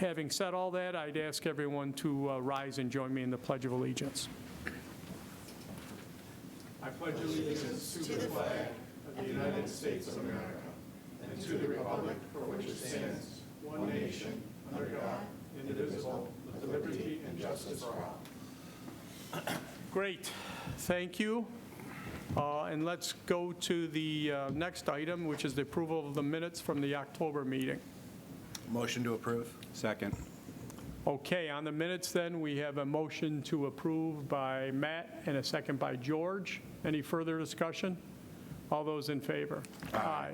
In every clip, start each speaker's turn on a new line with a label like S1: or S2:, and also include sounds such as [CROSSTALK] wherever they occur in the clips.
S1: Having said all that, I'd ask everyone to uh, rise and join me in the Pledge of Allegiance. Great, thank you. Uh, And let's go to the uh, next item, which is the approval of the minutes from the October meeting.
S2: Motion to approve. Second.
S1: Okay, on the minutes then, we have a motion to approve by Matt and a second by George. Any further discussion? All those in favor? Aye.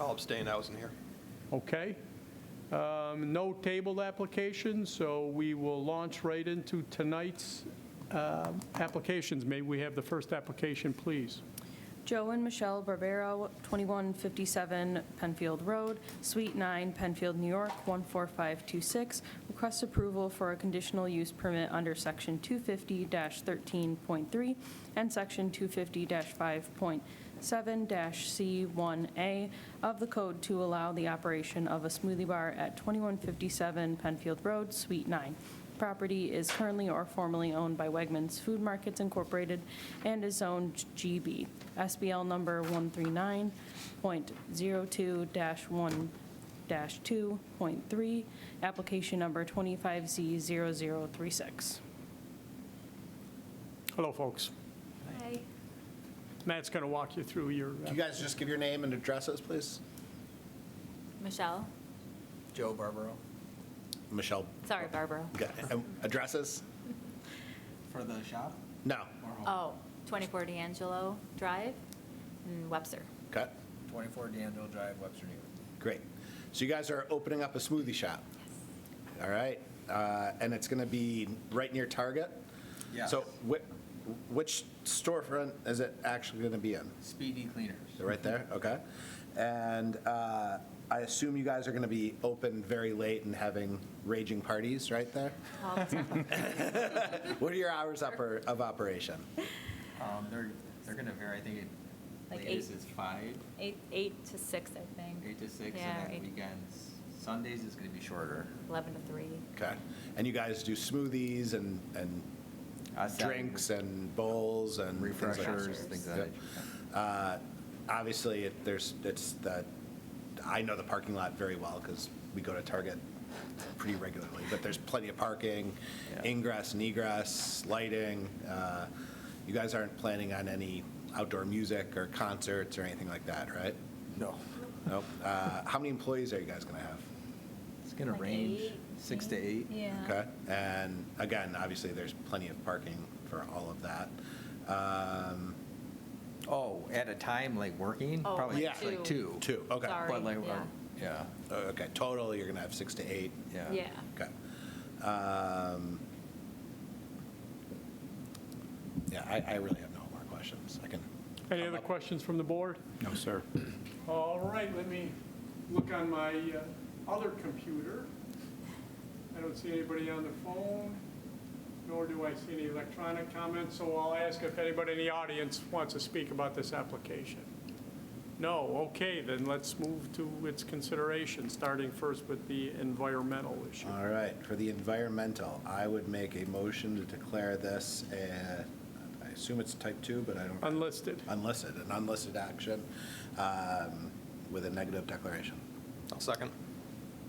S3: I'll abstain, I wasn't here.
S1: Okay. Um, No tabled applications, so we will launch right into tonight's um, applications. May we have the first application, please?
S4: Joe and Michelle Barbero, 2157 Penfield Road, Suite 9, Penfield, New York, 14526. Request approval for a conditional use permit under Section 250-13.3 and Section 250-5.7-C1A of the code to allow the operation of a smoothie bar at 2157 Penfield Road, Suite 9. Property is currently or formerly owned by Wegmans Food Markets Incorporated and is zoned GB, SBL number 139.02-1-2.3, application number 25Z0036.
S1: Hello, folks.
S5: Hi.
S1: Matt's going to walk you through your,
S2: Can you guys just give your name and addresses, please?
S5: Michelle.
S2: Joe Barbaro. Michelle,
S5: Sorry, Barbara.
S2: got- um, addresses?
S6: For the shop?
S2: No.
S6: Or
S5: Oh,
S6: home?
S5: 24 D'Angelo Drive in Webster.
S2: Okay,
S6: 24 D'Angelo Drive, Webster, New York.
S2: great. So you guys are opening up a smoothie shop? All right, uh, and it's going to be right near Target?
S6: Yeah.
S2: So whi- which storefront is it actually going to be in?
S6: Speedy Cleaners.
S2: They're right there, okay. And uh, I assume you guys are going to be open very late and having raging parties right there?
S5: All
S6: [LAUGHS]
S5: the time.
S2: What are your hours oper- of operation?
S6: Um, they're, they're gonna vary, I think it,
S5: Like
S6: latest
S5: eight.
S6: is five,
S5: Eight, eight to six, I think.
S6: eight to six,
S5: Yeah,
S6: and then
S5: eight-
S6: weekends, Sundays is gonna be shorter.
S5: 11 to three.
S2: Okay. And you guys do smoothies and, and
S6: Uh, Saturday-
S2: drinks and bowls and things like that?
S6: Refreshers, things of that. nature.
S2: Uh, Obviously, it, there's, it's the, I know the parking lot very well because we go to Target pretty regularly, but there's plenty of parking,
S6: Yeah.
S2: ingress and egress, lighting. Uh, You guys aren't planning on any outdoor music or concerts or anything like that, right?
S6: No.
S2: Nope. Uh, How many employees are you guys going to have?
S6: It's gonna
S5: Like
S6: range
S5: eight,
S6: six to eight.
S5: Yeah.
S2: Okay, and again, obviously, there's plenty of parking for all of that. Um,
S6: Oh, at a time like working?
S5: Oh,
S6: Probably
S2: like
S6: like two.
S2: Two, okay.
S5: Sorry.
S6: But like,
S5: yeah.
S6: uh, yeah,
S2: Okay, total, you're gonna have six to eight,
S6: yeah.
S5: Yeah.
S2: okay. Um, Yeah, I, I really have no more questions, I can.
S1: any
S2: come
S1: other
S2: up-
S1: questions from the board?
S2: No, sir.
S1: All right, let me look on my uh, other computer. I don't see anybody on the phone, nor do I see any electronic comments, so I'll ask if anybody in the audience wants to speak about this application. No, okay, then let's move to its consideration, starting first with the environmental issue.
S2: All right, for the environmental, I would make a motion to declare this, a- I assume it's type two, but I don't.
S1: Unlisted.
S2: unlisted, an unlisted action um, with a negative declaration.
S3: I'll second.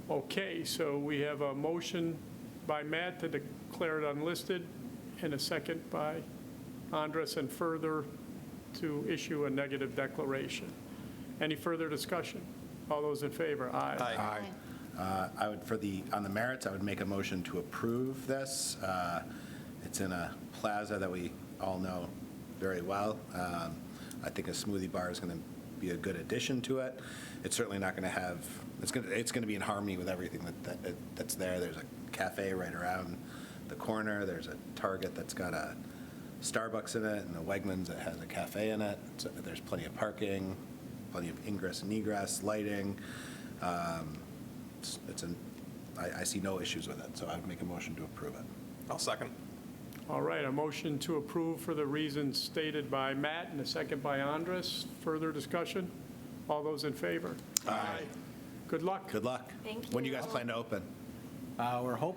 S1: Okay, so we have a motion by Matt to declare it unlisted, and a second by Andres, and further to issue a negative declaration. Any further discussion? All those in favor? Aye.
S3: Aye.
S2: Uh, I would, for the, on the merits, I would make a motion to approve this. Uh, It's in a plaza that we all know very well. Um, I think a smoothie bar is going to be a good addition to it. It's certainly not going to have, it's going to, it's going to be in harmony with everything that- that, that's there. There's a cafe right around the corner, there's a Target that's got a Starbucks in it, and a Wegmans that has a cafe in it. So There's plenty of parking, plenty of ingress and egress, lighting. Um, it's- It's an, I, I see no issues with it, so I'd make a motion to approve it.
S3: I'll second.
S1: All right, a motion to approve for the reasons stated by Matt, and a second by Andres. Further discussion? All those in favor? Aye. Good luck.
S2: Good luck.
S5: Thank
S2: When do you
S5: you.
S2: guys plan to open?
S6: Uh, We're hoping